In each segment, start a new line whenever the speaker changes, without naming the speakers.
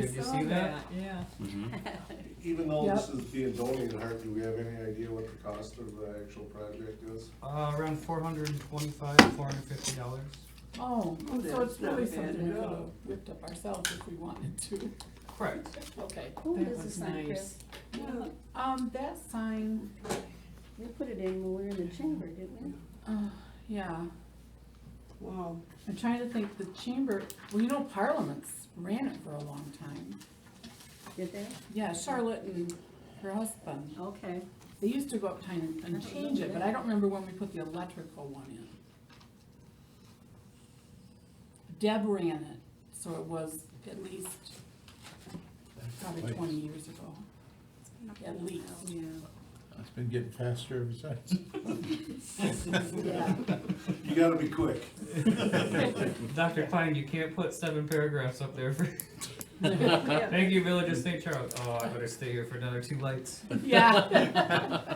Did you see that?
Yeah.
Even though this
Yep.
is being donated, Hart, do we have any idea what the cost of the actual project is?
Uh, around four hundred and twenty-five, four hundred and fifty dollars.
Oh, so
that's
it's really
not bad
something we
at
could have
all.
whipped up ourselves if we wanted to.
Correct.
Okay.
Who
that
does the
was
sign,
nice.
Yeah.
Um, that sign,
We put it in when we were in the chamber, didn't we?
uh, yeah,
Wow,
I'm trying to think, the chamber, well, you know, Parliament's ran it for a long time.
Did they?
Yeah, Charlotte and her husband,
Okay.
they used to go up time and change it, but I don't remember when we put the electrical one in. Deb ran it, so it was at least probably twenty years ago, at least.
Yeah.
It's been getting faster ever since.
Yeah.
You gotta be quick.
Dr. Klein, you can't put seven paragraphs up there for, thank you, Village of St. Charles. Oh, I better stay here for another two lights.
Yeah.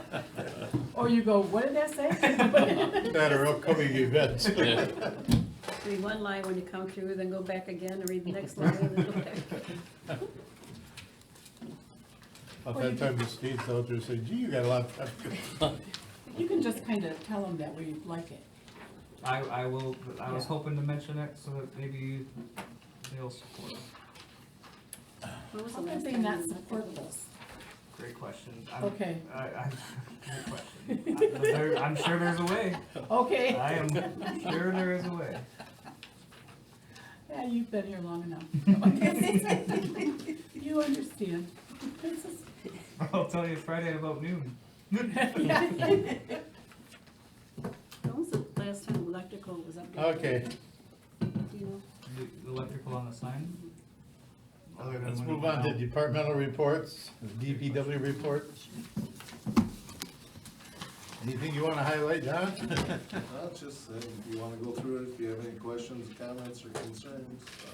Or you go, what did that say?
That are upcoming events.
Read one line when you come through, then go back again and read the next line and then go back.
About that time, the state's out there saying, gee, you got a lot of.
You can just kind of tell them that we like it.
I, I will, I was
Yeah.
hoping to mention it so that maybe they'll support.
When was the
How
last
could they
time
not
you looked at
support
those?
this?
Great question. I'm-
Okay.
I, I, great question. I- there- I'm sure there's a way.
Okay,
I am sure there is a way.
yeah, you've been here long enough. You understand. This is-
I'll tell you Friday about noon.
When was the last time electrical was updated?
Okay,
Do you know?
The the electrical on the sign. Other than
let's
when we
move
went
on to
out.
departmental reports, DPW reports. Anything you wanna highlight, John?
I'll just say, if you wanna go through it, if you have any questions, comments, or concerns, uh,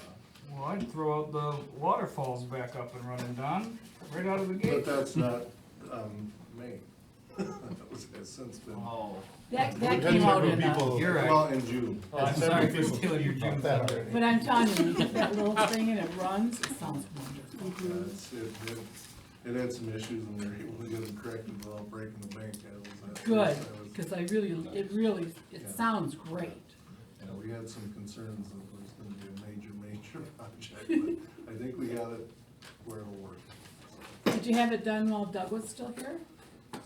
Well, I'd throw out the waterfalls back up and running, Don, right out of the
but
gate.
that's not, um, me. That was, has since been,
Oh,
That, that
Depends
came
on
out
who
in a,
people-
You're right.
well, in June.
Oh, I'm
That's
sorry
several
for
people
stealing your
about
June
that
thunder.
but I'm telling you, you get that little thing and it runs, it sounds wonderful.
Uh, it's- It it- it had some issues and they were able to get them corrected without breaking the bank. That was- that was-
Good,
that was-
because I really, it really, it sounds great.
Yeah, we had some concerns that it was gonna be a major, major project, but I think we got it where it'll work.
Did you have it done while Doug was still here?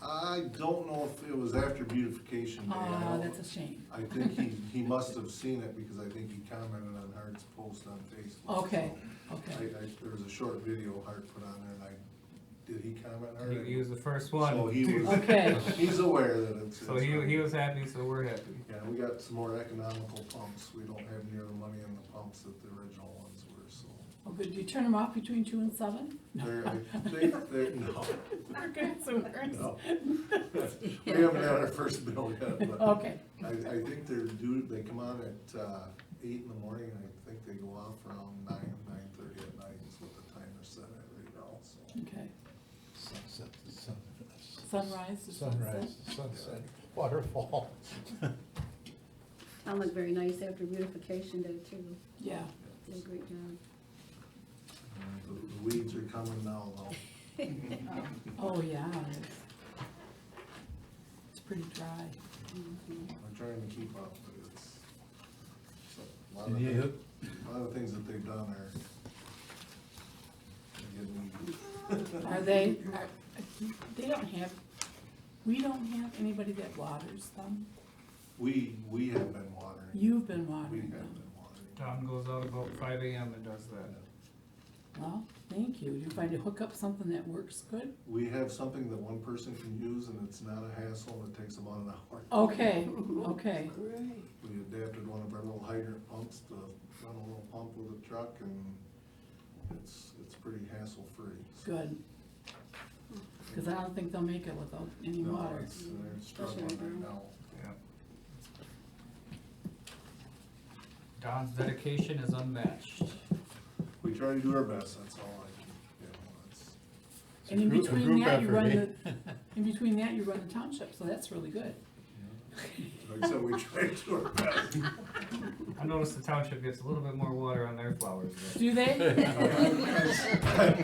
I don't know if it was after beautification day. I
Ah,
don't-
that's a shame.
I think he, he must have seen it because I think he commented on Hart's post on Facebook.
Okay,
I, I,
okay.
there was a short video Hart put on there and I, did he comment, Hart?
he, he was the first
So
one.
he was-
Okay.
He's aware that it's.
So he, he was happy, so we're happy.
Yeah, we got some more economical pumps. We don't have near the money in the pumps that the original ones were, so.
Oh, good, do you turn them off between two and seven?
They're, they, they're, no,
Okay, so Ernst-
no. We haven't had our first bill yet, but
Okay,
I, I think they're due, they come on at, uh, eight in the morning, and I think they go off around nine, nine-thirty at night is what the timer's set at right now, so.
okay.
Sunset, the sun-
Sunrise to sunset.
Sunrise, the sunset, waterfall.
Town looked very nice after beautification day too.
Yeah,
Did a great job.
And The the weeds are coming now, though.
oh, yeah. it's- It's pretty dry.
We're trying to keep up, but it's. so, a lot of
Did you,
things- A lot of things that they've done are. are getting weedy.
Are they, are, they don't have, we don't have anybody that waters them?
We, we have been watering.
You've been
We
watering
have
them.
been
Don
watering.
goes out about five AM and does that.
Well, thank you. You find to hook up something that works good?
We have something that one person can use and it's not a hassle, it takes about an hour.
Okay, okay.
great.
We adapted one of our little hydrant pumps to run a little pump with a truck and it's, it's pretty hassle-free. So,
Good. Cause I don't think they'll make it without any
no,
water.
it's- They're struggling right now.
Yeah. Don's dedication is unmatched.
We try to do our best, that's all I can, you know, it's,
And in
Group-
between
group
that, you
effort,
run
eh?
the, in between that, you run the township, so that's really good.
you know, like I said, we tried to our best.
I noticed the township gets a little bit more water on their flowers. but-
Do they?
Yeah,